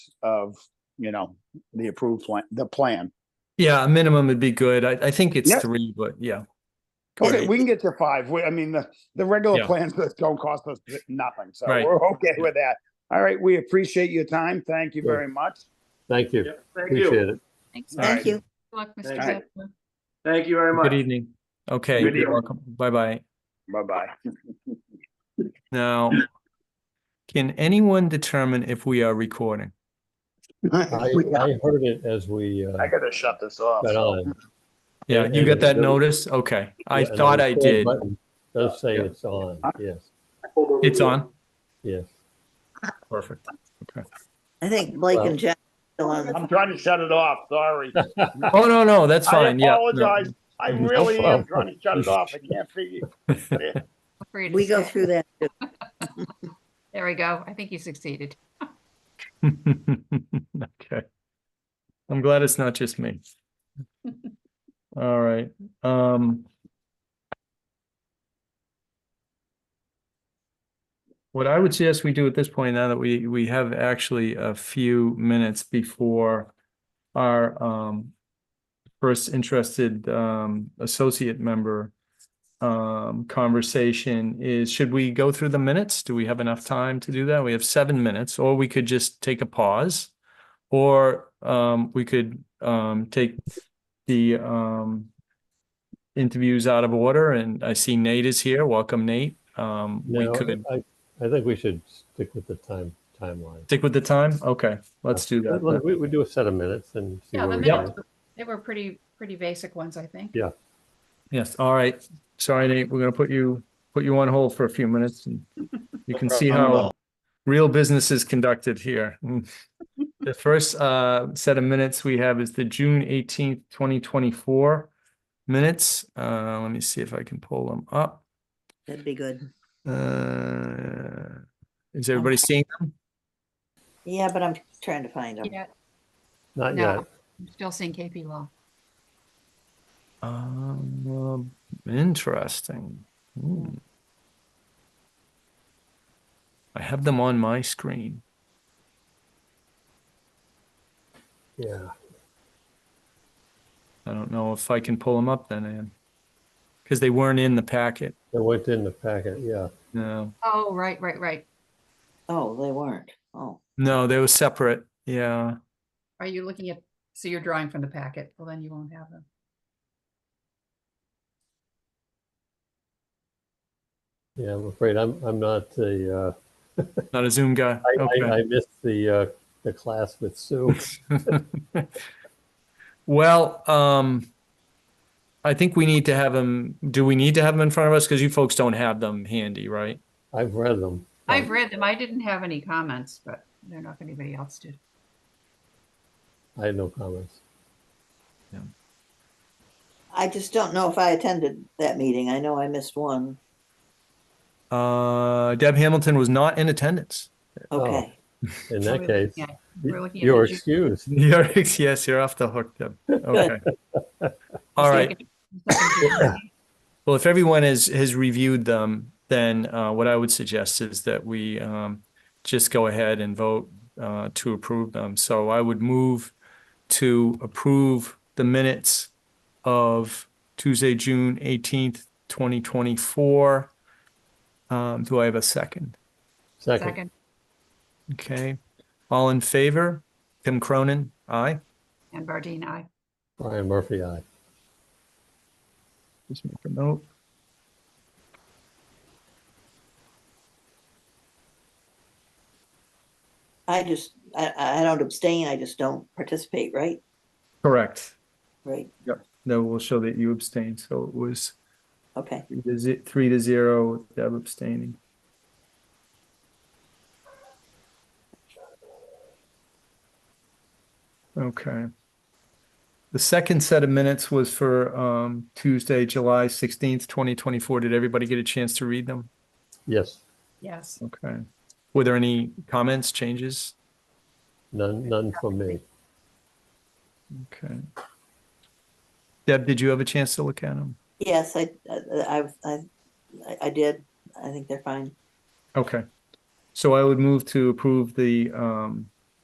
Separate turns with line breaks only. of, you know, the approved plan, the plan.
Yeah, a minimum would be good. I, I think it's
Yeah.
three, but yeah.
Okay,
Right.
we can get to five. We, I mean, the, the regular
Yeah.
plans that don't cost us nothing, so
Right.
we're okay with that. All right, we appreciate your time. Thank you
Sure.
very much.
Thank you.
Thank
Appreciate
you.
it.
Thanks.
All right.
Mr.
Thank you.
Luck, Mr.
Thank you.
Zeppelin.
Thank you
uh,
very much.
Good evening. Okay,
Good
you're
evening.
welcome. Bye-bye.
Bye-bye.
Now, can anyone determine if we are recording?
I,
I
I heard it as we uh,
gotta shut this off.
got on.
Yeah,
Yeah,
you got that
yeah.
notice? Okay, I
Yeah, and the
thought I
record
did.
button Does say
Yeah.
it's on, yes,
It's on?
yes.
Perfect.
I think Blake
Well-
and Jack are still on the
I'm trying to shut it off, sorry.
Oh, no, no, that's
I
fine. Yeah. no.
apologize. I
No
really am
problem.
trying to shut it off. I can't figure.
Afraid to
We go
say it.
through that. too.
There we go. I think you succeeded.
Okay. I'm glad it's not just me. All right, um. What I would suggest we do at this point, now that we, we have actually a few minutes before our, um. First interested, um, associate member. Um, conversation is, should we go through the minutes? Do we have enough time to do that? We have seven minutes, or we could just take a pause. Or um, we could um, take the um, interviews out of order, and I see Nate is here. Welcome, Nate. Um, we
No,
could
I, I think we should stick with the time, timeline.
stick with the time. Okay, let's do
Let- let-
that.
We, we do a set of minutes and see
Yeah,
where
the
we
minutes,
go.
were- they were pretty, pretty basic ones, I think.
Yes. All right. Sorry, Nate. We're gonna put you put you on hold for a few minutes, and you can see how real business is conducted here. Mm. The first uh, set of minutes we have is the June eighteenth, twenty twenty four minutes. Uh, let me see if I can pull them up.
That'd be good.
Uh, is everybody seeing them?
Yeah, but I'm trying to find them.
Yeah,
Not
No.
yet.
I'm still seeing KP Law.
Um, interesting. Hmm. I have them on my screen.
Yeah,
I don't know if I can pull them up then, Ann. Because they weren't in the packet.
it went in the packet, yeah.
No,
Oh, right, right, right.
Oh, they weren't. Oh,
no, they were separate. Yeah.
Are you looking at, so you're drawing from the packet? Well, then you won't have them.
Yeah, I'm afraid I'm, I'm not the, uh,
Not a Zoom guy.
I, I,
Okay.
I missed the, uh, the class with Sue.
Well, um, I think we need to have them. Do we need to have them in front of us? Because you folks don't have them handy, right?
I've read them.
I've read them. I didn't have any comments, but I don't know if anybody else did.
I had no comments.
I just don't know if I attended that meeting. I know I missed one.
Uh, Deb Hamilton was not in attendance.
Oh.
Okay.
In
So
that
we're
case,
looking at- We're looking at.
you're
the June-
excused.
You're, yes, you're off the hook, Deb. Okay. All right.
second- second June.
Well, if everyone has has reviewed them, then uh, what I would suggest is that we um, just go ahead and vote uh, to approve them. So I would move to approve the minutes of Tuesday, June eighteenth, twenty twenty four. Um, do I have a second?
Second,
Second,
Okay, all in favor? Tim Cronin, aye.
and Bardine, aye.
Brian Murphy, aye.
Just make a note.
I just, I, I don't abstain. I just don't participate, right?
Correct.
Right.
No, we'll show that you abstained. So it was
Okay.
Three to ze- Three to zero, with Deb abstaining. Okay. The second set of minutes was for um, Tuesday, July 16th, 2024. Did everybody get a chance to read them?
Yes,
Yes.
Okay. Were there any comments, changes?
none, none for me.
Okay. Deb, did you have a chance to look at them?
Yes, I, I, I, I- I did. I think they're fine.
Okay. So I would move to approve the um,